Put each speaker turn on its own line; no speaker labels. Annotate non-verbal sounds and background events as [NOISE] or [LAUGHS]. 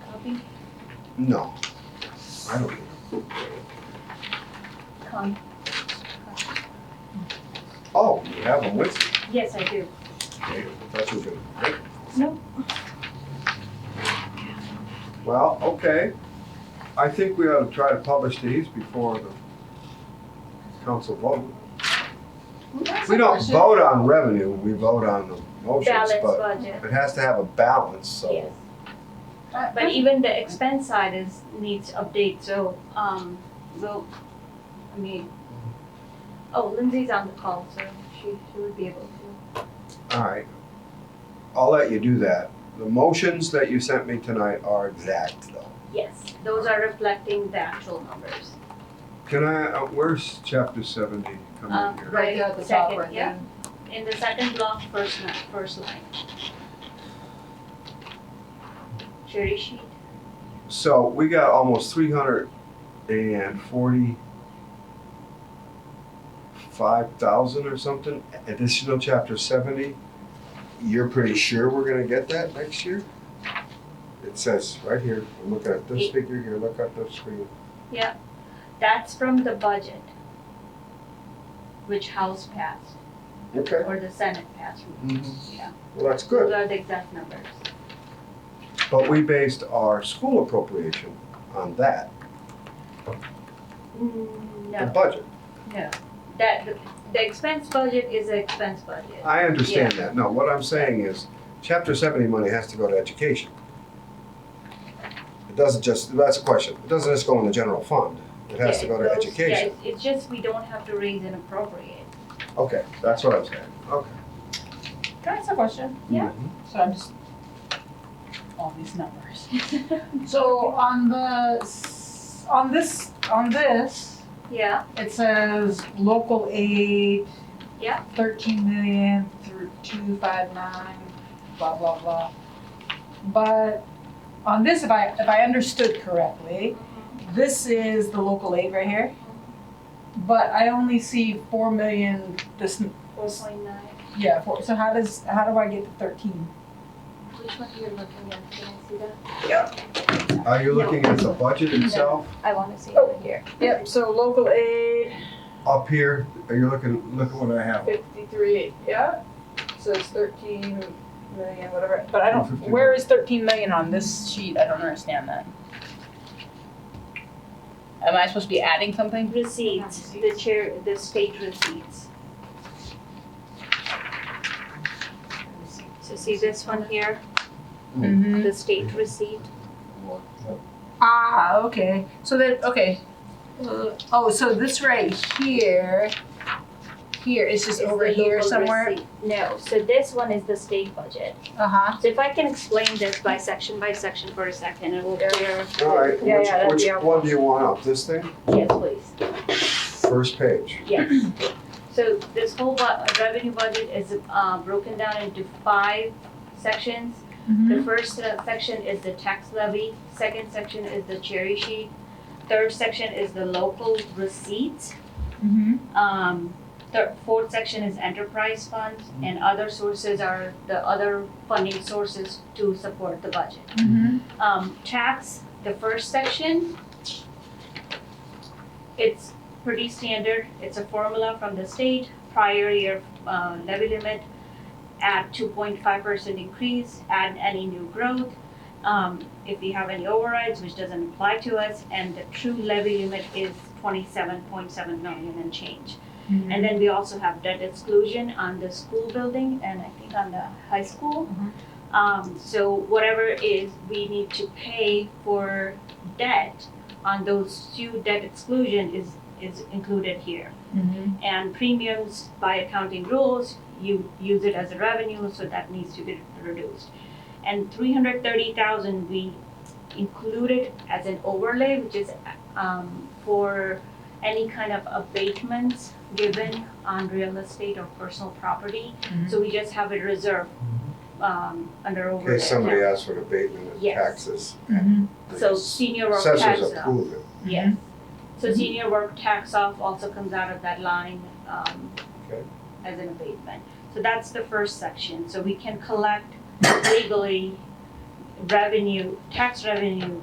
copy?
No, I don't think.
Con,
Oh, you have them with you.
yes, I do.
Okay, that's what you're.
Nope.
Well, okay. I think we ought to try to publish these before the council vote. We don't vote on revenue, we vote on the motions,
Balanced
but
budget,
it has to have a balance, so.
yes. But even the expense side is, needs update, so, um, we'll, I mean, oh, Lindsay's on the call, so she, she would be able to.
All right. I'll let you do that. The motions that you sent me tonight are exact though.
Yes, those are reflecting the actual numbers.
Can I, uh, where's chapter seventy coming
Um,
here?
right
Right there at the top,
second,
right
yeah.
there.
In the second block, first line, first line. Cherry sheet,
So we got almost three hundred and forty-five thousand or something additional chapter seventy. You're pretty sure we're gonna get that next year? It says right here, I'm looking at this
Eight.
figure here, look at the screen.
that's from the budget, which House passed,
Okay,
or the Senate passed, yeah.
well, that's
Those
good,
are the exact numbers.
but we based our school appropriation on that,
Mm,
the
No,
budget.
no, that, the- the expense budget is an expense budget.
I understand that, no, what I'm saying is, chapter seventy money has to go to education. It doesn't just, that's a question, it doesn't just go in the general fund, it has to
Yeah,
go
it
to
goes- Yeah,
education.
it's- it's just we don't have to raise and appropriate. [LAUGHS]
Okay, that's what I'm saying, okay.
Can I ask a question?
Yeah.
So I'm just, all these numbers. So on the, s- on this, on this,
Yeah,
it says local aid.
Yeah.
Thirteen million through two five nine, blah, blah, blah. But on this, if I, if I understood correctly,
Mm-hmm.
this is the local aid right here. But I only see four million, this,
four point nine.
yeah, four, so how does, how do I get to thirteen?
Which one are you looking at? Can I see that?
Are you looking at the budget itself,
I wanna see
it
here.
Oh, Yep, so local aid,
up here, are you looking, look at what I have,
fifty-three, yeah, so it's thirteen million, whatever, but I don't,
51.
where is thirteen million on this sheet, I don't understand that. Am I supposed to be adding something?
Receipts, the chair, the state receipts. So see this one here,
Mm-hmm.
the state receipt?
Ah, okay, so then, okay, Uh, oh, so this right here, here, it's just
is
over
the
here
local
somewhere,
receipt. No, so this one is the state budget.
uh-huh,
So if I can explain this by section by section for a second, it will
Yeah.
clear.
all right,
Yeah, yeah,
which,
that'd be
which
helpful.
one do you want up, this thing,
Yes, please.
first page?
Yes. So this whole bu- revenue budget is uh, broken down into five sections.
Mm-hmm.
The first uh, section is the tax levy, second section is the cherry sheet, third section is the local receipts.
mm-hmm.
Um, thir- fourth section is enterprise funds and other sources are the other funding sources to support the budget.
Mm-hmm.
Um, tax, the first section, it's pretty standard. It's a formula from the state, prior year uh, levy limit, add two point five percent increase, add any new growth. Um, if we have any overrides, which doesn't apply to us, and the true levy limit is twenty-seven point seven million and change. And then we also have debt exclusion on the school building and I think on the high school. Um, so whatever is, we need to pay for debt on those two debt exclusion is, is included here.
Mm-hmm.
And premiums by accounting rules, you use it as a revenue, so that needs to be reduced. And three hundred thirty thousand, we included as an overlay, which is, um, for any kind of abatements given on real estate or personal property.
Mhm.
So we just have it reserved, um, under
In
overlay.
case somebody asks for an abatement of
Yes. Mm-hmm.
taxes.
So uh, senior work tax.
Assessors approve it,
Yes. So senior work tax off also comes out of that line, um,
Okay.
as an abatement. So that's the first section, so we can collect legally revenue, tax revenue